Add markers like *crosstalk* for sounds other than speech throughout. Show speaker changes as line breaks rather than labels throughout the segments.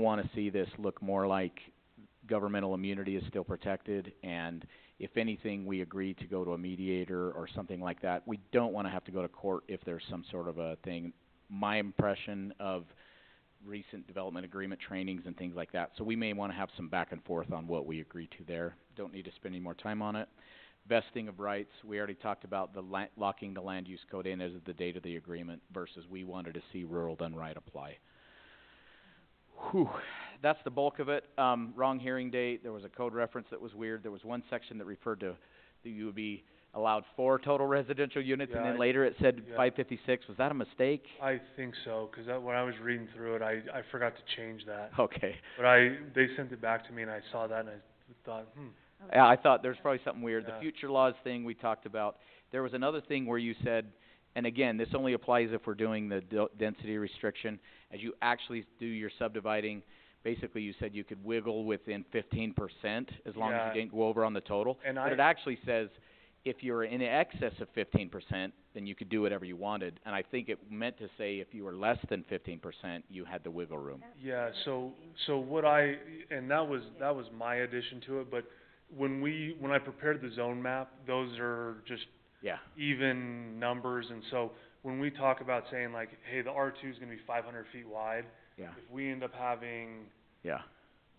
wanna see this look more like governmental immunity is still protected, and if anything, we agree to go to a mediator or something like that. We don't wanna have to go to court if there's some sort of a thing. My impression of recent development agreement trainings and things like that, so we may wanna have some back and forth on what we agree to there. Don't need to spend any more time on it. Vesting of rights, we already talked about the la- locking the land use code in as of the date of the agreement versus we wanted to see rural done right apply. Whew, that's the bulk of it. Um, wrong hearing date, there was a code reference that was weird, there was one section that referred to, that you would be allowed four total residential units, and
Yeah,
then
I-
later it said
yeah.
five fifty-six, was that a mistake?
I think so, 'cause that, when I was reading through it, I, I forgot to change that.
*laughs* Okay.
But I, they sent it back to me and I saw that and I thought, hmm,
Yeah, I thought there's probably something weird. The
Yeah.
future laws thing we talked about. There was another thing where you said, and again, this only applies if we're doing the d- density restriction. As you actually do your subdividing, basically you said you could wiggle within fifteen percent as long
Yeah.
as you didn't go over on the total.
and
But
I,
it actually says if you're in excess of fifteen percent, then you could do whatever you wanted. And I think it meant to say if you were less than fifteen percent, you had the wiggle room.
yeah, so, so what I, and that was, that was my addition to it, but when we, when I prepared the zone map, those are just
Yeah.
even numbers, and so when we talk about saying like, hey, the R two's gonna be five hundred feet wide,
Yeah.
if we end up having,
Yeah.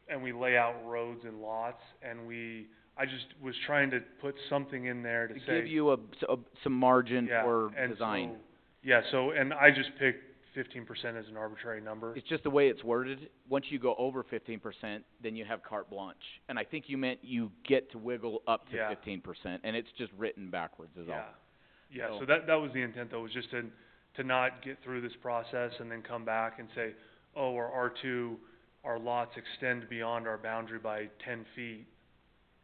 and we lay out roads and lots, and we, I just was trying to put something in there to
To
say.
give you a, s- a- some margin
Yeah,
for
and
design.
so- Yeah, so, and I just picked fifteen percent as an arbitrary number.
It's just the way it's worded. Once you go over fifteen percent, then you have carte blanche. And I think you meant you get to wiggle up to
Yeah.
fifteen percent, and it's just written backwards is
Yeah,
all.
yeah,
So-
so that, that was the intent though, was just to, to not get through this process and then come back and say, oh, our R two, our lots extend beyond our boundary by ten feet,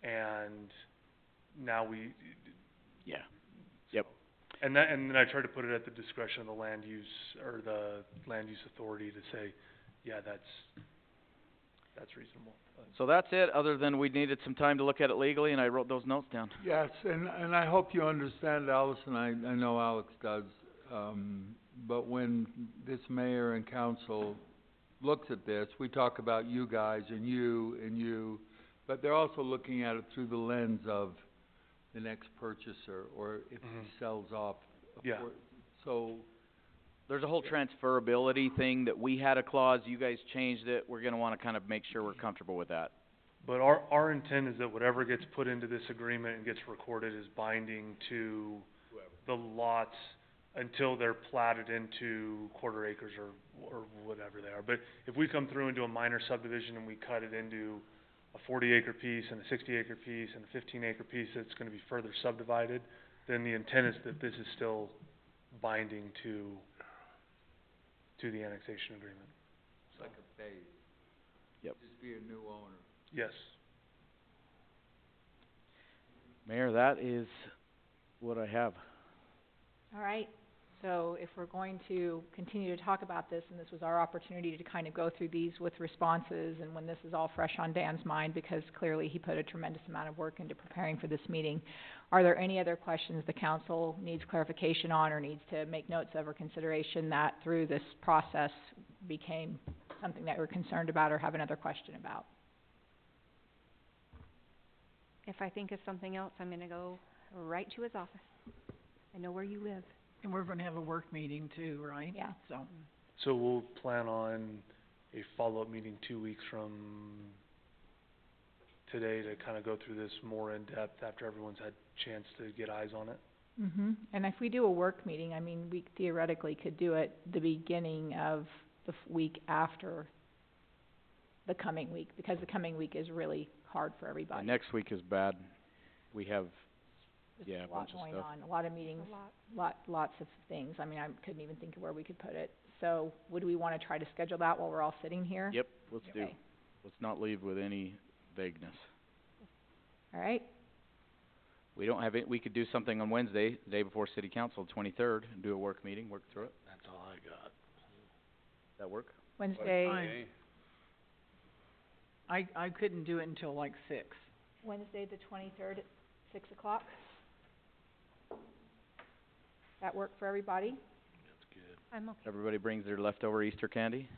and now we,
Yeah.
and that, and then I tried to put it at the discretion of the land use, or the land use authority to say, yeah, that's, that's reasonable. but-
So that's it, other than we needed some time to look at it legally, and I wrote those notes down.
Yes, and, and I hope you understand, Allison, I, I know Alex does, um, but when this mayor and council looks at this, we talk about you guys and you and you, but they're also looking at it through the lens of the next purchaser, or if
Mhm.
he sells off a
Yeah.
por- So,
There's a whole transferability thing that we had a clause, you guys changed it, we're gonna wanna kind of make sure we're comfortable with that.
But our, our intent is that whatever gets put into this agreement and gets recorded is binding to the lots until they're platted into quarter acres or, or whatever they are. But if we come through and do a minor subdivision and we cut it into a forty acre piece and a sixty acre piece and a fifteen acre piece that's gonna be further subdivided, then the intent is that this is still binding to, to the annexation agreement.
it's like a phase.
Yep.
Just be a new owner.
Yes.
Mayor, that is what I have.
All right, so if we're going to continue to talk about this, and this was our opportunity to kind of go through these with responses, and when this is all fresh on Dan's mind, because clearly he put a tremendous amount of work into preparing for this meeting, are there any other questions the council needs clarification on or needs to make notes of or consideration that through this process became something that we're concerned about or have another question about?
If I think of something else, I'm gonna go right to his office. I know where you live.
And we're gonna have a work meeting too, right?
Yeah.
So,
So we'll plan on a follow-up meeting two weeks from today to kind of go through this more in depth after everyone's had chance to get eyes on it.
hmm and if we do a work meeting, I mean, we theoretically could do it the beginning of the f- week after the coming week, because the coming week is really hard for
And
everybody.
next week is bad. We have,
There's
yeah, a bunch of
A lot
stuff.
going on, a lot of meetings,
A lot.
lot, lots of things, I mean, I couldn't even think of where we could put it. So, would we wanna try to schedule that while we're all sitting here?
yep, let's do.
Okay.
Let's not leave with any vagueness.
All right,
We don't have it, we could do something on Wednesday, the day before city council, twenty-third, and do a work meeting, work through it.
That's all I got.
That work?
Wednesday,
I, I, I couldn't do it until like six.
Wednesday the twenty-third at six o'clock? That work for everybody? *laughs*
That's good.
I'm okay.
Everybody brings their leftover Easter candy?